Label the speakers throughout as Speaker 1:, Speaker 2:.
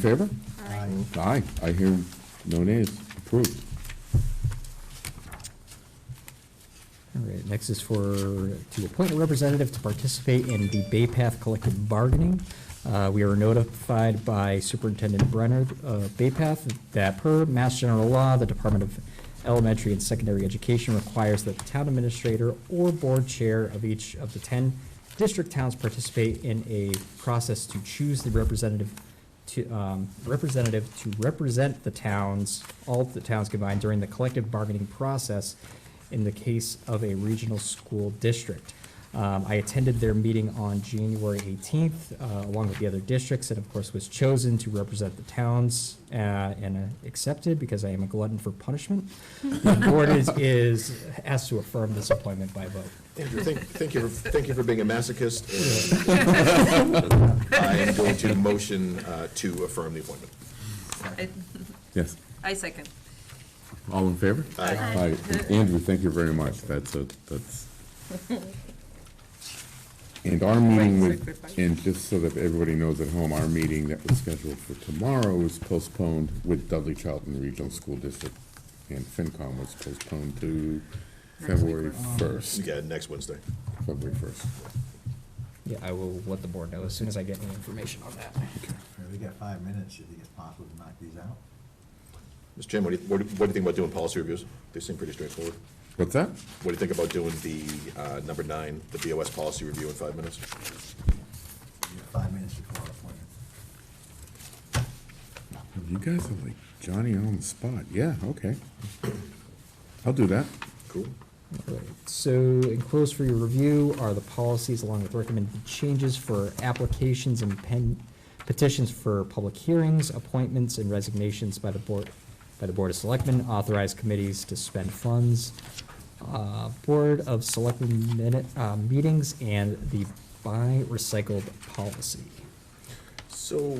Speaker 1: Favor? Aye, I hear no nays, approved.
Speaker 2: All right, next is for, to appoint a representative to participate in the Bay Path collective bargaining. Uh, We are notified by Superintendent Brenner of Bay Path that per Mass General Law, the Department of Elementary and Secondary Education requires that the town administrator or board chair of each of the 10 district towns participate in a process to choose the representative to, um, representative to represent the towns, all of the towns combined during the collective bargaining process in the case of a regional school district. Um, I attended their meeting on January 18th, uh, along with the other districts, and of course was chosen to represent the towns uh, and uh, accepted because I am a glutton for punishment. The board is, is asked to affirm this appointment by vote.
Speaker 3: Andrew, thank, thank you, for- thank you for being a masochist. and I am going to motion uh, to affirm the appointment.
Speaker 4: I-
Speaker 1: Yes,
Speaker 4: I second.
Speaker 1: all in favor?
Speaker 3: Aye.
Speaker 1: Aye, And Andrew, thank you very much, that's a, that's. And our meeting with, and just so that everybody knows at home, our meeting that was scheduled for tomorrow is postponed with Dudley Charlton Regional School District, and FinCom was postponed to February first,
Speaker 3: Yeah, next Wednesday.
Speaker 1: February first.
Speaker 2: Yeah, I will let the board know as soon as I get any information on that.
Speaker 5: All right, we got five minutes, you think it's possible to knock these out?
Speaker 3: Mr. Jim, what do you, what do what do you think about doing policy reviews? They seem pretty straightforward.
Speaker 1: What's that?
Speaker 3: What do you think about doing the uh, number nine, the BOS policy review in five minutes?
Speaker 5: You got Five minutes before our appointment.
Speaker 1: You guys are like Johnny on the spot, yeah, okay. I'll do that.
Speaker 3: Cool.
Speaker 2: Alright, So enclosed for your review are the policies along with recommended changes for applications and pen, petitions for public hearings, appointments and resignations by the board, by the Board of Selectmen, authorized committees to spend funds, uh, Board of Selectmen minute, uh, meetings, and the buy recycled policy.
Speaker 3: So,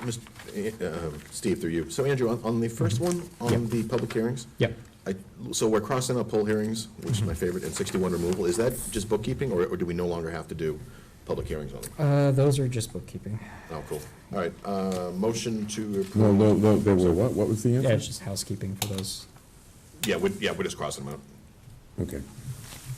Speaker 3: Mr., um, Steve, through you. So Andrew, on, on the first one, on
Speaker 2: Yep.
Speaker 3: the public hearings?
Speaker 2: Yep.
Speaker 3: I, so we're crossing out poll hearings, which is my favorite, and sixty-one removal. Is that just bookkeeping, or, or do we no longer have to do public hearings on them?
Speaker 2: Uh, those are just bookkeeping.
Speaker 3: Oh, cool. All right, uh, motion to
Speaker 1: No,
Speaker 3: approve.
Speaker 1: no, no, they were what, what was the answer?
Speaker 2: Yeah, it's just housekeeping for those.
Speaker 3: Yeah, we, yeah, we're just crossing them
Speaker 1: Okay,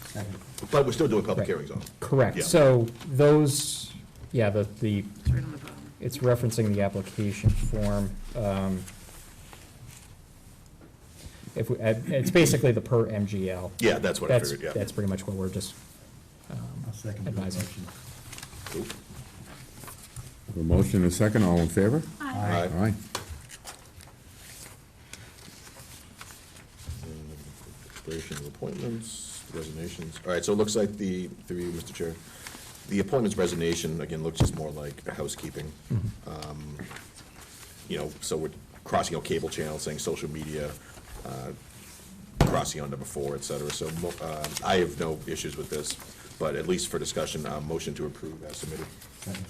Speaker 5: Second.
Speaker 3: out. But we're still doing public
Speaker 2: Right.
Speaker 3: hearings on them.
Speaker 2: Correct,
Speaker 3: Yeah.
Speaker 2: so those, yeah, the, the
Speaker 4: It's right on the bottom.
Speaker 2: It's referencing the application form. um, If, we- uh, it's basically the per MGL.
Speaker 3: Yeah, that's what I
Speaker 2: That's,
Speaker 3: figured, yeah.
Speaker 2: that's pretty much what we're just um,
Speaker 5: I'll second the
Speaker 2: advising.
Speaker 5: motion.
Speaker 3: Cool.
Speaker 1: a motion and a second, all in favor?
Speaker 3: Aye.
Speaker 1: Aye.
Speaker 3: Expiration of appointments, resignations. All right, so it looks like the, through you, Mr. Chair, the appointments resignation, again, looks just more like housekeeping. Um, You know, so we're crossing out cable channels, saying social media, uh, crossing on number four, et cetera. So mo- uh, I have no issues with this, but at least for discussion, uh, motion to approve as submitted.
Speaker 5: Second.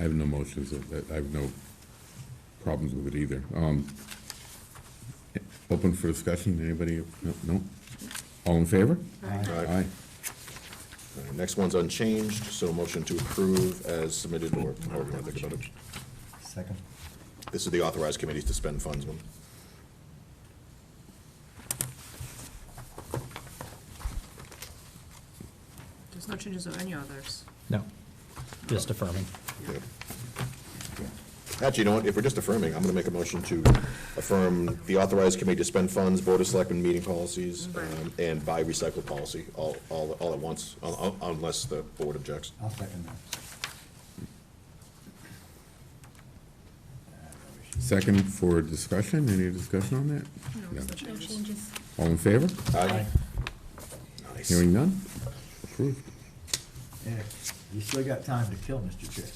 Speaker 1: I have no motions, I I have no problems with it either. Um, Open for discussion, anybody? No, no? All in favor?
Speaker 3: All right.
Speaker 1: Aye.
Speaker 3: All right, Next one's unchanged, so motion to approve as submitted, or however you want to think about it.
Speaker 5: Second.
Speaker 3: This is the authorized committees to spend funds one.
Speaker 4: There's no changes of any others.
Speaker 2: No, just affirming.
Speaker 3: Yeah. Actually, you know what, if we're just affirming, I'm gonna make a motion to affirm the authorized committee to spend funds, Board of Selectmen meeting policies, um, and buy recycle policy, all, all, all at once, un- un- unless the board objects.
Speaker 5: I'll second that. Ah,
Speaker 1: Second for discussion, any discussion on that?
Speaker 4: there's no changes.
Speaker 1: All in favor?
Speaker 3: Aye. Nice.
Speaker 1: Hearing none? Approved.
Speaker 5: Yeah, eh, You still got time to kill, Mr. Chair.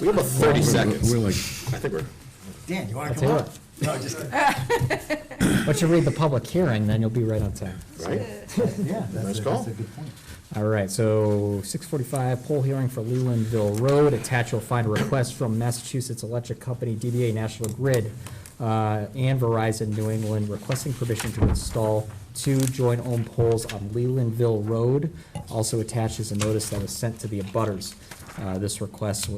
Speaker 3: We have about thirty
Speaker 1: We're-
Speaker 3: seconds.
Speaker 1: We're like,
Speaker 3: I think we're,
Speaker 5: Dan, you wanna
Speaker 2: I'll
Speaker 5: come
Speaker 2: tell you
Speaker 5: on? No, just, kidding.
Speaker 2: But you read the public hearing, then you'll be right on time.
Speaker 3: right?
Speaker 5: yeah,
Speaker 3: Nice
Speaker 5: that's a,
Speaker 3: call.
Speaker 5: that's a good point.
Speaker 2: All right, so six forty-five, poll hearing for Lelandville Road. Attached, you'll find a request from Massachusetts Electric Company, DBA National Grid, uh, and Verizon New England requesting permission to install two joint-owned poles on Lelandville Road. Also attached is a notice that was sent to the abutters. Uh, This request